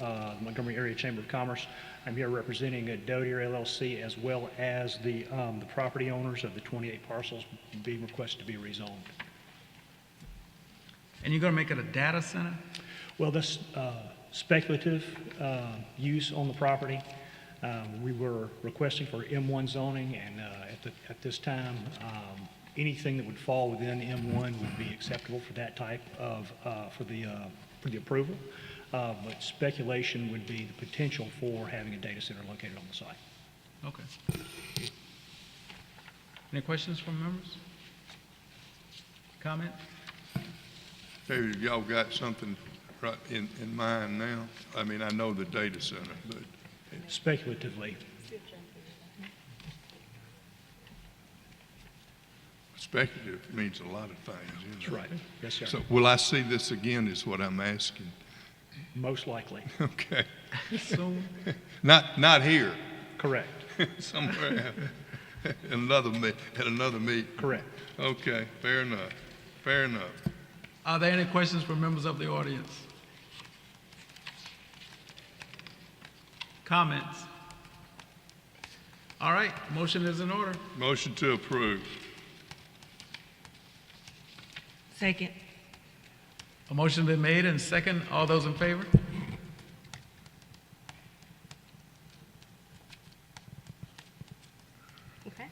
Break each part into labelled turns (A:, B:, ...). A: uh, Montgomery Area Chamber of Commerce. I'm here representing uh, Dozier LLC as well as the, um, the property owners of the 28 parcels being requested to be rezoned.
B: And you're gonna make it a data center?
A: Well, that's uh, speculative uh, use on the property. Um, We were requesting for M1 zoning, and uh, at the- at this time, um, anything that would fall within M1 would be acceptable for that type of, uh, for the, uh, for the approval. Uh, But speculation would be the potential for having a data center located on the site.
B: Okay. Any questions from members? Comment?
C: Maybe if y'all got something right in, in mind now. I mean, I know the data center, but
A: Speculatively,
C: speculative means a lot of things, you know.
A: that's right. Yes, sir.
C: So will I see this again is what I'm asking.
A: Most likely,
C: Okay.
B: Soon?
C: Not, not here,
A: correct,
C: somewhere else. Another meet, at another meet.
A: correct.
C: Okay, fair enough, fair enough.
B: Are there any questions from members of the audience? Comments? All right, motion is in order.
C: Motion to approve.
D: Second.
B: A motion been made and second. All those in favor?
E: Okay.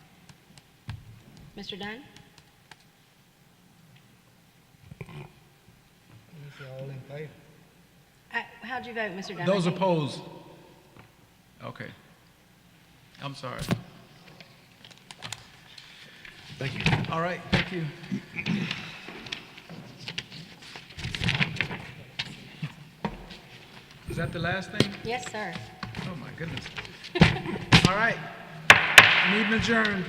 E: Mr. Dunn? Uh, How'd you vote, Mr. Dunn?
B: Those
E: I think-
B: opposed? Okay. I'm sorry.
A: Thank you.
B: All right, thank you. Is that the last thing?
E: Yes, sir.
B: Oh, my goodness. All right. Meeting adjourned.